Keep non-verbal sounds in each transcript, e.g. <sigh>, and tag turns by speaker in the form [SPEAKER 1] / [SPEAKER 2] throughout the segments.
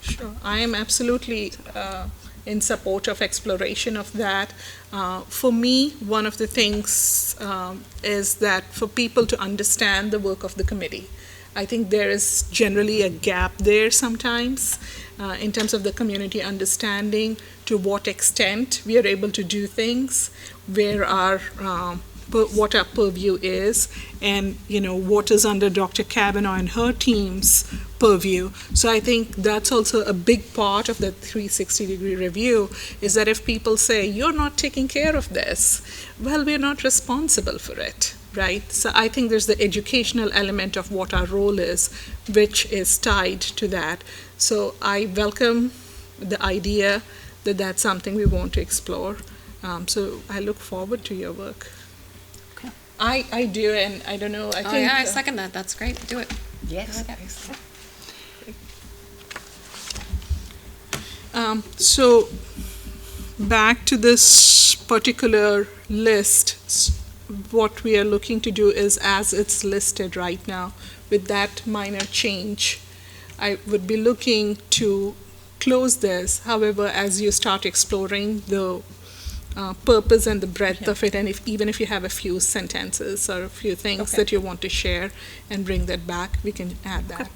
[SPEAKER 1] Sure, I am absolutely uh, in support of exploration of that. Uh, For me, one of the things um, is that for people to understand the work of the committee. I think there is generally a gap there sometimes uh, in terms of the community understanding to what extent we are able to do things, where our, um, pur- what our purview is, and, you know, what is under Dr. Kavanaugh and her team's purview. So I think that's also a big part of the 360 degree review is that if people say, you're not taking care of this, well, we're not responsible for it, right? So I think there's the educational element of what our role is, which is tied to that. So I welcome the idea that that's something we want to explore. Um, so I look forward to your work.
[SPEAKER 2] Okay.
[SPEAKER 1] I, I do, and I don't know. I
[SPEAKER 2] Oh,
[SPEAKER 1] think
[SPEAKER 2] yeah, I
[SPEAKER 1] uh,
[SPEAKER 2] second that. That's great. Do it.
[SPEAKER 3] Yes.
[SPEAKER 1] Um, so, back to this particular list, s- what we are looking to do is as it's listed right now, with that minor change, I would be looking to close this. However, as you start exploring the uh, purpose and the breadth of it, and if, even if you have a few sentences or a few things
[SPEAKER 2] Okay.
[SPEAKER 1] that you want to share and bring that back, we can add that.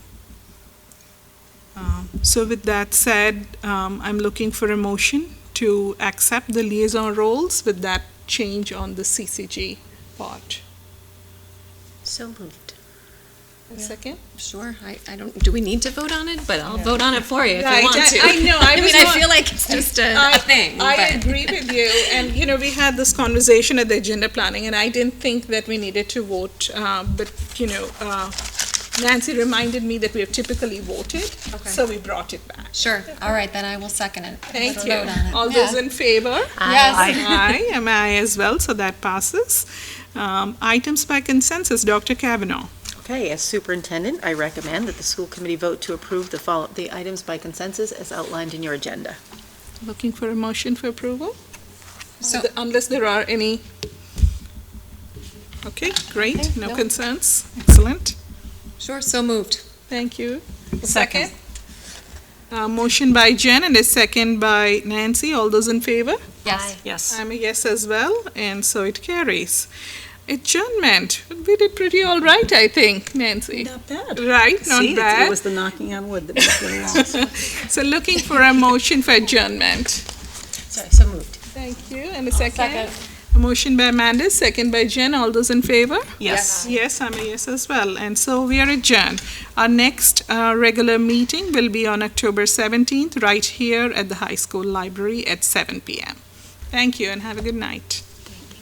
[SPEAKER 1] Um, So with that said, um, I'm looking for a motion to accept the liaison roles with that change on the CCG part.
[SPEAKER 2] So moved. Yeah.
[SPEAKER 1] Second?
[SPEAKER 2] Sure. I, I don't, do we need to vote on it? But I'll vote on it for you if
[SPEAKER 1] Right,
[SPEAKER 2] you want
[SPEAKER 1] I-
[SPEAKER 2] to.
[SPEAKER 1] I know, I
[SPEAKER 2] <laughs> I
[SPEAKER 1] was
[SPEAKER 2] mean, I
[SPEAKER 1] not-
[SPEAKER 2] feel like it's just a,
[SPEAKER 1] I-
[SPEAKER 2] a thing.
[SPEAKER 1] I
[SPEAKER 2] but-
[SPEAKER 1] agree with you, and, you know, we had this conversation at the agenda planning, and I didn't think that we needed to vote, uh, but, you know, uh, Nancy reminded me that we have typically voted,
[SPEAKER 2] Okay.
[SPEAKER 1] so we brought it back.
[SPEAKER 2] Sure. All right, then I will second it.
[SPEAKER 1] Thank
[SPEAKER 2] Let's
[SPEAKER 1] you.
[SPEAKER 2] vote on it.
[SPEAKER 1] All
[SPEAKER 2] Yeah.
[SPEAKER 1] those in favor?
[SPEAKER 2] Yes.
[SPEAKER 1] Aye, am I as well, so that passes. Um, Items by consensus, Dr. Kavanaugh.
[SPEAKER 3] Okay, as superintendent, I recommend that the school committee vote to approve the follow, the items by consensus as outlined in your agenda.
[SPEAKER 1] Looking for a motion for approval?
[SPEAKER 2] So-
[SPEAKER 1] Unless there are any. Okay, great,
[SPEAKER 2] Okay,
[SPEAKER 1] no
[SPEAKER 2] no.
[SPEAKER 1] concerns, excellent,
[SPEAKER 2] Sure, so moved.
[SPEAKER 1] thank you.
[SPEAKER 2] Second.
[SPEAKER 1] Uh, Motion by Jen and a second by Nancy, all those in favor?
[SPEAKER 2] Yes.
[SPEAKER 3] Yes.
[SPEAKER 1] I'm a yes as well, and so it carries. Adjournment, we did pretty all right, I think, Nancy.
[SPEAKER 4] Not bad.
[SPEAKER 1] Right,
[SPEAKER 4] See,
[SPEAKER 1] not
[SPEAKER 4] it's- It
[SPEAKER 1] bad.
[SPEAKER 4] was the knocking on wood that was really long.
[SPEAKER 1] <laughs> So looking for a motion for adjournment.
[SPEAKER 3] Sorry, so moved.
[SPEAKER 1] Thank you, and a second. A motion by Amanda, second by Jen, all those in favor?
[SPEAKER 2] Yes.
[SPEAKER 1] Yes, I'm a yes as well, and so we are adjourned. Our next uh, regular meeting will be on October 17th, right here at the high school library at 7 PM. Thank you, and have a good night.